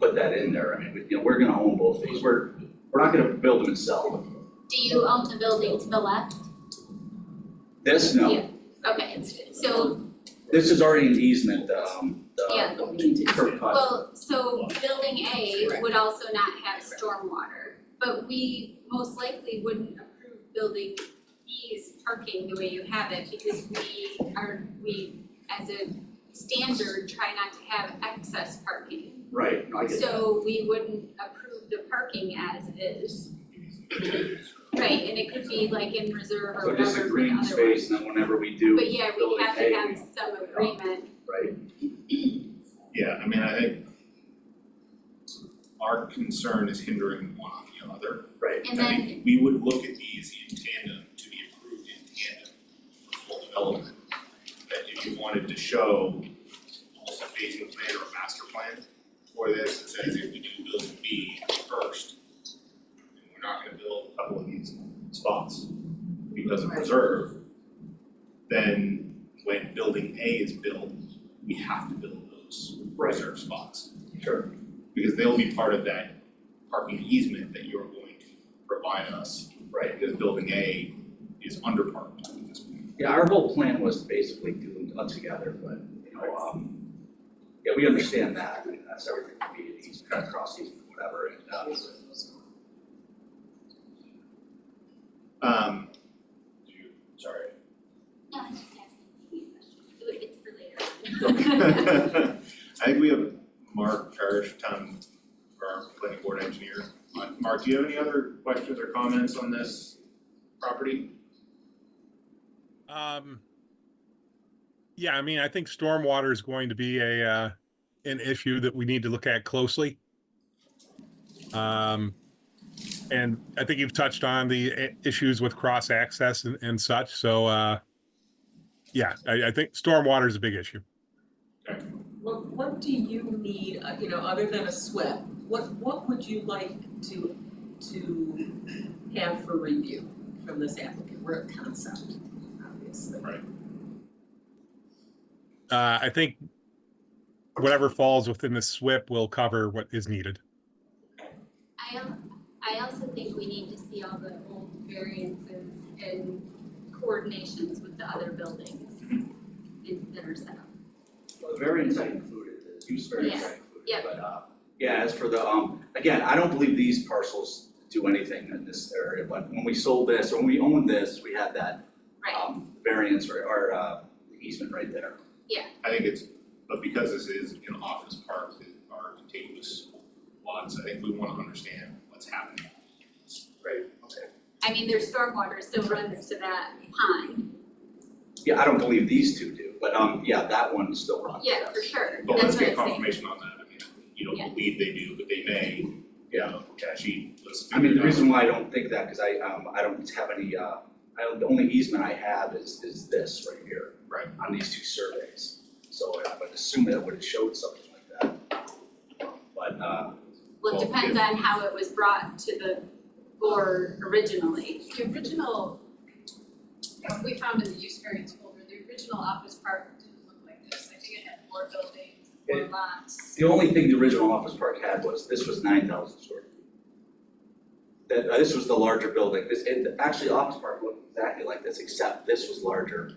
put that in there, I mean, we- you know, we're gonna own both these, we're, we're not gonna build them and sell them. Do you own the building to the left? This, no, Yeah. Okay, it's- so, this is already an easement, um, Yeah. the curb cut, well, so building A would also not have stormwater, but we most likely wouldn't approve building B's parking the way you have it because we are, we as a standard try not to have excess parking. right, no, I get that. So we wouldn't approve the parking as is. Right, and it could be like in reserve or So whatever just a for green other space, and then whenever we do, ones. But yeah, we building have A, to we have some agreement, right, Yeah, I mean, I think our concern is hindering one on the other. right, and I then, think we would look at these in tandem to be approved in tandem for full development. That if you wanted to show almost a phasing plan or a master plan for this, that says if we do building B first, then we're not gonna build a couple of these spots because of Right. reserve, then when building A is built, we have to build those reserve spots sure, because they'll be part of that parking easement that you're going to provide us. Right. Because building A is underparked at this point. yeah, our whole plan was to basically do them all together, but, you know, um, yeah, we understand that, I mean, that's everything, we need, these cut across these, whatever, and, uh, Um, do you- sorry. no, I'm just asking you a question, it's for later. I think we have Mark Parrish, town, our planning board engineer. Uh, Mark, do you have any other questions or comments on this property? Um, yeah, I mean, I think stormwater is going to be a uh, an issue that we need to look at closely. Um, and I think you've touched on the i- issues with cross access and, and such. So, uh, yeah, I, I think stormwater is a big issue. What what do you need, uh, you know, other than a SWIP, what what would you like to to have for review from this applicant? We're a concept, obviously. Right. Uh, I think whatever falls within the SWIP will cover what is needed. I al- I also think we need to see all the old variances and coordinations with the other buildings in- that are set up. Well, the variance I included, the use variance I Yeah, included, but uh, yeah, as for the, um, again, I don't believe these parcels do anything in this area, but when we sold this, or when we owned this, we had that Right, um variance or or uh easement right there. I think it's, but because this is an office park, that are contiguous lots, I think we wanna understand what's happening. Right, okay. I mean, their stormwater still runs to that pond, Yeah, I don't believe these two do, but um, yeah, that one still runs, yeah, yes. for sure, But that's let's what I'm saying. get confirmation on that, I mean, you Yeah. don't believe they do, but they may, you Yeah. know, gee, let's I mean, the figure it out. reason why I don't think that, cause I um, I don't have any uh, I don't, the only easement I have is is this right here. Right. On these two surveys, so I would assume that would have showed something like that. But uh, Well, it Well, depends on how it was brought to the board originally. The original, what we found in the use variance folder, the original office park didn't look like this. I think it had more buildings, more lots. the only thing the original office park had was, this was nine thousand square. feet. That, uh, this was the larger building, this, and actually office park looked exactly like this, except this was larger,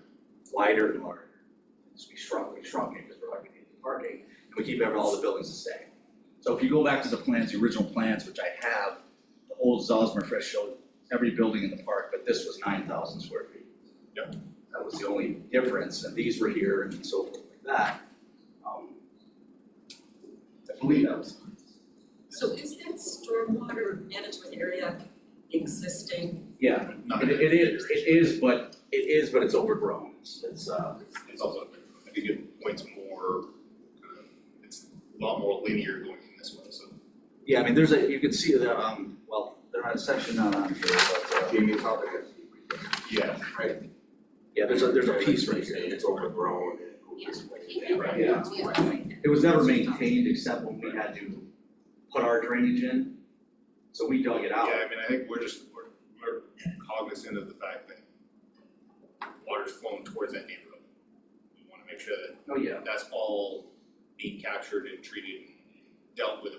wider and larger. So we shrunk, we shrunk it because we're not gonna need the parking, and we keep every, all the buildings the same. So if you go back to the plans, the original plans, which I have, the old Zosmer Fresh showed every building in the park, but this was nine thousand square feet. Yep. That was the only difference, and these were here and so forth like that. Um, I believe that was. So is that stormwater management area existing? Yeah, Not it, that it is, configuration. it is, but, it is, but it's overgrown, It's- it's, uh, It's also, I think it points more, kind of, it's a lot more linear going in this way, so. yeah, I mean, there's a, you can see the, um, well, there's not a section not on here, but, uh, Jamie Parker Yeah. right? yeah, there's a, there's a piece right here, It's it's over. overgrown and who Yeah. is what is Yeah. that, right? Yeah. It was never maintained except when we had to put our drainage in, so we dug it Yeah, out. I mean, I think we're just, we're, we're cognizant of the fact that water's flowing towards that neighborhood. We wanna make sure that Oh, yeah. that's all being captured and treated and dealt with